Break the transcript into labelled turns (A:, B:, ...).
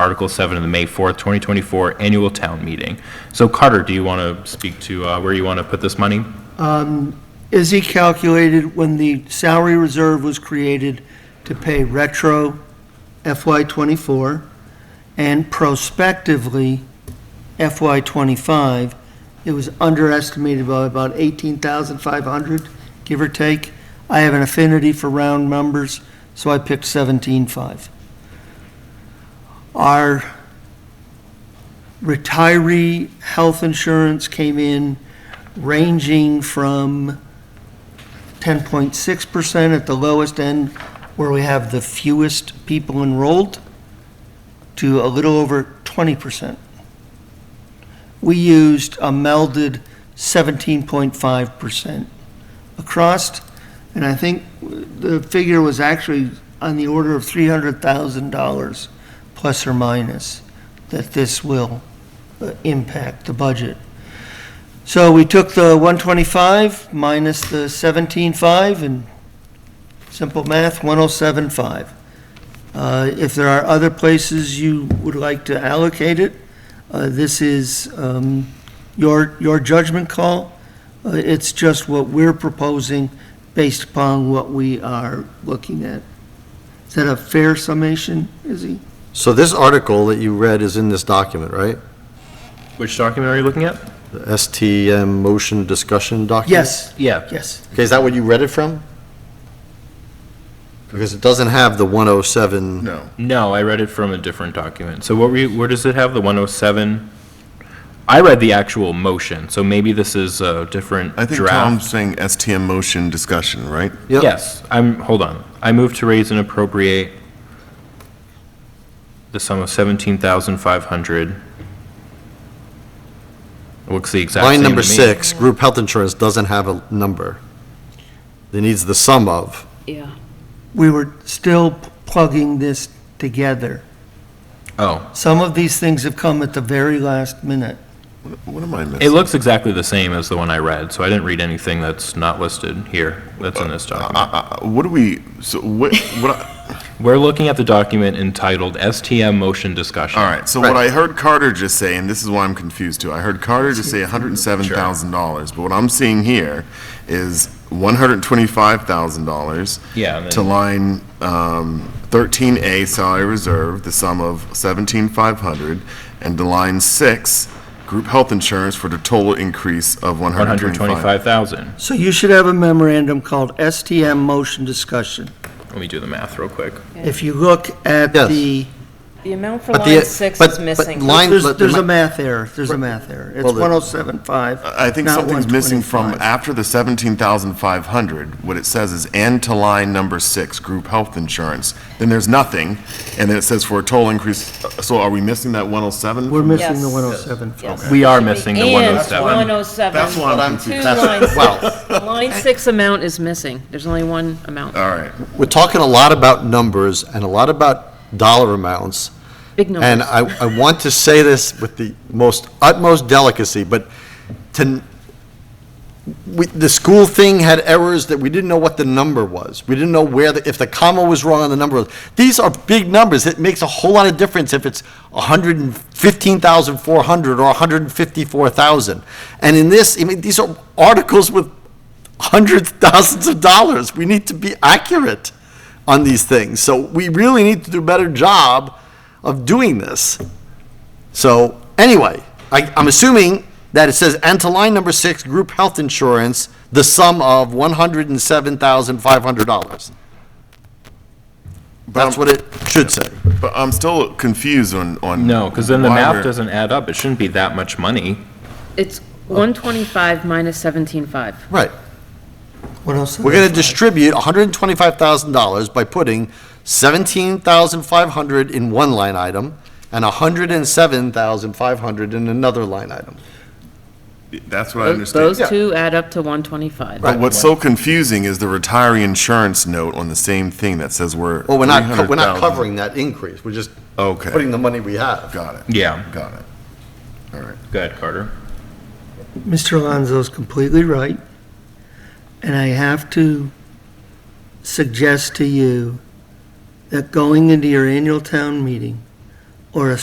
A: Article 7 of the May 4th, 2024 Annual Town Meeting. So Carter, do you want to speak to uh, where you want to put this money?
B: Is he calculated when the salary reserve was created to pay retro FY '24 and prospectively FY '25? It was underestimated by about 18,500, give or take. I have an affinity for round numbers, so I picked 17.5. Our retiree health insurance came in ranging from 10.6% at the lowest end, where we have the fewest people enrolled, to a little over 20%. We used a melded 17.5% across, and I think the figure was actually on the order of $300,000, plus or minus, that this will uh, impact the budget. So we took the 125 minus the 17.5 and simple math, 107.5. Uh, If there are other places you would like to allocate it, uh, this is um, your, your judgment call. Uh, It's just what we're proposing based upon what we are looking at. Is that a fair summation, Izzy?
C: So this article that you read is in this document, right?
A: Which document are you looking at?
C: The STM motion discussion document?
B: Yes,
A: Yeah.
B: yes.
C: Okay, is that what you read it from? Because it doesn't have the 107.
D: No.
A: No, I read it from a different document. So what were you, where does it have, the 107? I read the actual motion, so maybe this is a different
D: I
A: draft.
D: think Tom's saying STM motion discussion, right?
C: Yep.
A: Yes, I'm, hold on. I move to raise and appropriate the sum of 17,500. Looks the exact same
C: Line
A: to
C: number
A: me.
C: six, group health insurance doesn't have a number. It needs the sum of.
E: Yeah,
B: We were still plugging this together.
A: Oh,
B: Some of these things have come at the very last minute.
D: What am I
A: it
D: missing?
A: looks exactly the same as the one I read, so I didn't read anything that's not listed here, that's in this document.
D: Uh, What do we, so what, what, I-
A: We're looking at the document entitled STM Motion Discussion.
D: all right, so what I heard Carter just say, and this is why I'm confused too, I heard Carter just say $107,000, but what I'm seeing here is $125,000.
A: Yeah, and then-
D: To line um, 13A salary reserve, the sum of 17,500, and to line six, group health insurance for the total increase of 125.
A: 125,000.
B: So you should have a memorandum called STM motion discussion.
A: Let me do the math real quick.
B: If you look at
C: Yes.
B: the,
E: the amount for
C: But the- uh,
E: line six
C: but-
E: is
C: but
E: missing.
C: line-
B: there's,
C: let-
B: there's a math error, there's a math error. It's
C: Well, the-
B: 1075.
D: I think
B: not
D: something's missing from
B: 125.
D: after the seventeen thousand five hundred, what it says is and to line number six, group health insurance. Then there's nothing, and then it says for a total increase, uh, so are we missing that one oh seven?
B: We're missing the
E: Yes.
B: 107.
E: Yes.
A: We are missing oh the
E: And
A: 107.
E: 107.
D: That's what I'm confused.
E: Two lines.
C: Well,
E: Line six amount is missing. There's only one amount.
D: All right,
C: we're talking a lot about numbers and a lot about dollar amounts.
E: Big
C: And uh,
E: numbers.
C: I, I want to say this with the most utmost delicacy, but to, we, the school thing had errors that we didn't know what the number was. We didn't know where, the if the comma was wrong on the number. These are big numbers. It makes a whole lot of difference if it's 115,400 or 154,000. And in this, I mean, these are articles with hundreds, thousands of dollars. We need to be accurate on these things. So we really need to do a better job of doing this. So, anyway, I, I'm assuming that it says, and to line number six, group health insurance, the sum of one hundred and seven thousand five hundred dollars. That's what it should say.
D: but I'm still confused on, on.
A: No, because then the
D: why
A: math
D: we're-
A: doesn't add up. It shouldn't be that much money.
E: It's 125 minus 17.5.
C: Right.
B: What else?
C: We're gonna distribute hundred and twenty-five thousand dollars by putting seventeen thousand five hundred in one line item and a hundred and seven thousand five hundred in another line item.
D: That's what I understand.
E: Those two add up to 125.
D: But what's so confusing is the retiree insurance note on the same thing that says we're.
C: Well, we're not, co- we're not
D: 300,000.
C: covering that increase. We're just
D: Okay.
C: putting the money we have.
D: Got it.
A: Yeah.
D: Got it. All right.
A: Go ahead, Carter.
B: Mr. Alonso's completely right, and I have to suggest to you that going into your annual town meeting, or a